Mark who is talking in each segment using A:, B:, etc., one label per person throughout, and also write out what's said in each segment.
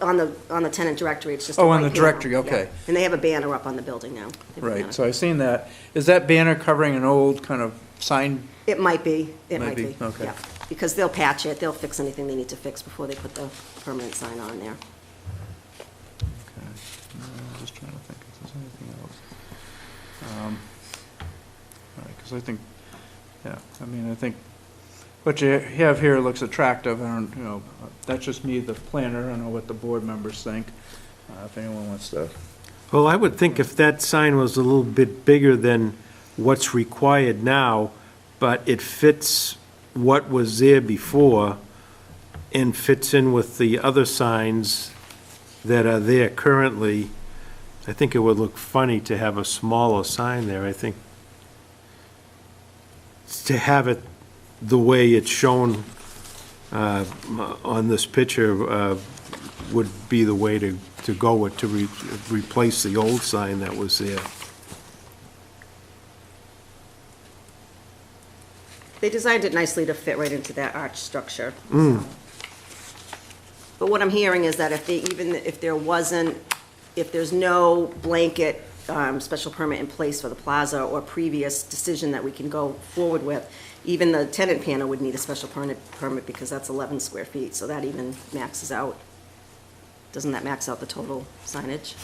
A: on the, on the tenant directory, it's just a
B: Oh, on
A: white
B: the
A: panel,
B: directory,
A: yeah.
B: okay.
A: And they have a banner up on the building now. They have a banner.
B: Right, so I seen that. Is that banner covering an old kind of sign?
A: It might be, it
B: Might
A: might
B: be,
A: be,
B: okay.
A: yeah. Because they'll patch it, they'll fix anything they need to fix before they put the permanent sign on there.
B: Okay, no, I'm Just trying to think if there's anything else. Um, All right, because I think, yeah, I mean, I think what you have here looks attractive, and, you know, that's just me, the planner, I don't know what the board members think, uh, if anyone wants to.
C: Well, I would think if that sign was a little bit bigger than what's required now, but it fits what was there before and fits in with the other signs that are there currently, I think it would look funny to have a smaller sign there, I think. To have it the way it's shown uh, on this picture uh, would be the way to, to go with, to re- replace the old sign that was there.
A: They designed it nicely to fit right into that arch structure.
B: Mm.
A: But what I'm hearing is that if they, even if there wasn't, if there's no blanket um, special permit in place for the plaza or previous decision that we can go forward with, even the tenant panel would need a special permit, permit because that's 11 square feet, so that even maxes out. Doesn't that max out the total signage?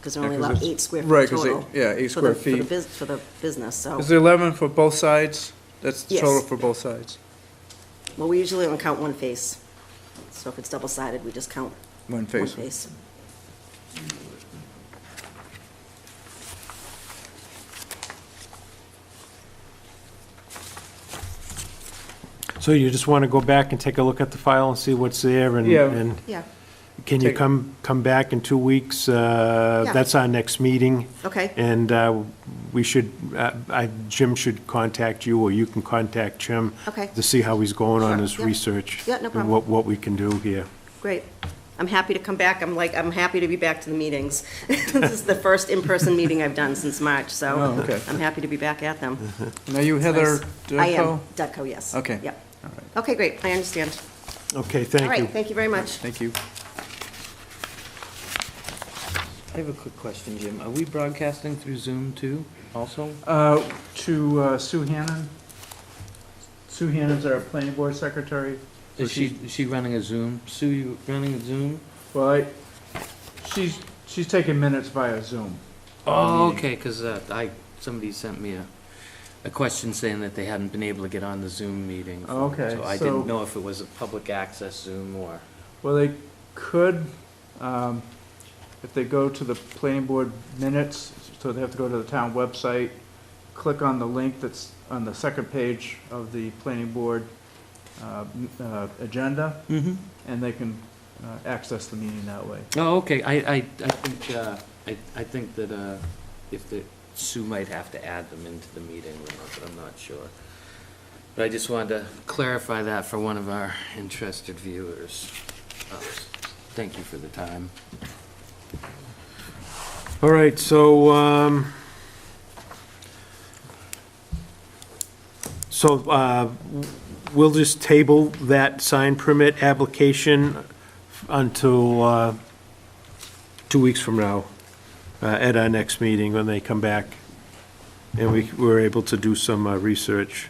A: Because they're only
B: Yeah, 'cause
A: allowed
B: it's-
A: eight square
B: right,
A: feet
B: 'cause eight-
A: total.
B: yeah, eight
A: for the-
B: square
A: For the
B: feet.
A: bus- for the business, so.
B: Is the 11 for both sides? That's the
A: Yes.
B: total for both sides?
A: Well, we usually only count one face. So if it's double-sided, we just count
B: One
A: one
B: face?
A: face.
C: So you just want to go back and take a look at the file and see what's there, and,
B: Yeah.
C: and
A: Yeah,
C: can you
B: Take-
C: come, come back in two weeks? Uh,
A: Yeah.
C: That's our next meeting,
A: okay,
C: and uh, we should, uh, I- Jim should contact you, or you can contact Jim.
A: Okay.
C: To see how he's going on
A: Sure,
C: his
A: yeah.
C: research.
A: Yeah, no problem.
C: And what, what we can do here.
A: great. I'm happy to come back. I'm like, I'm happy to be back to the meetings. This is the first in-person meeting I've done since March,
B: Oh,
A: so
B: okay.
A: I'm happy to be back at them.
B: Now, you Heather Durko?
A: I am, Dutco, yes.
B: Okay.
A: Yep.
B: All right,
A: Okay, great, I understand.
C: Okay,
A: All
C: thank you.
A: right, thank you very much.
B: thank you.
D: I have a quick question, Jim. Are we broadcasting through Zoom too, also?
B: Uh, To uh, Sue Hannan. Sue Hannan's our planning board secretary.
D: Is she, is she running a Zoom? Sue, you running a Zoom?
B: Well, I, she's, she's taking minutes via Zoom.
D: Oh, okay, because I, somebody sent me a, a question saying that they hadn't been able to get on the Zoom meeting.
B: Oh, okay,
D: So I
B: so-
D: didn't know if it was a public access Zoom or.
B: Well, they could, um, if they go to the planning board minutes, so they have to go to the town website, click on the link that's on the second page of the planning board uh, m- uh, agenda,
D: Mm-hmm.
B: and they can uh, access the meeting that way.
D: Oh, okay. I, I, I think, uh, I, I think that, uh, if the, Sue might have to add them into the meeting or not, but I'm not sure. But I just wanted to clarify that for one of our interested viewers. Uh, Thank you for the time.
C: All right, so, um, so, uh, we'll just table that sign permit application until, uh, two weeks from now, uh, at our next meeting when they come back. And we, we're able to do some, uh, research.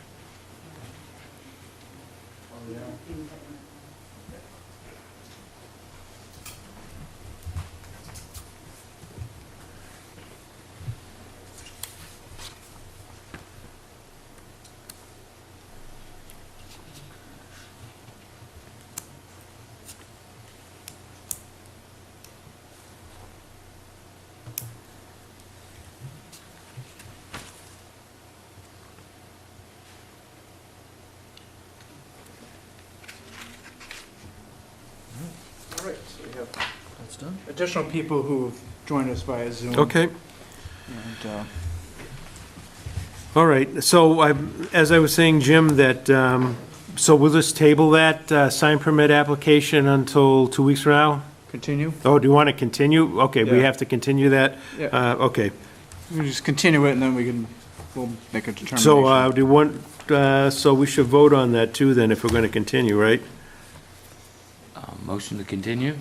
B: All right, so we have
D: That's done.
B: additional people who've joined us via Zoom.
C: Okay.
B: And, uh,
C: All right, so I, as I was saying, Jim, that, um, so we'll just table that, uh, sign permit application until two weeks from now?
B: Continue?
C: Oh, do you want to continue? Okay, we
B: Yeah.
C: have to continue that?
B: Yeah,
C: Uh, okay.
B: we just continue it and then we can, we'll make a determination.
C: So, uh, do you want, uh, so we should vote on that too then, if we're going to continue, right?
D: Um, Motion to continue?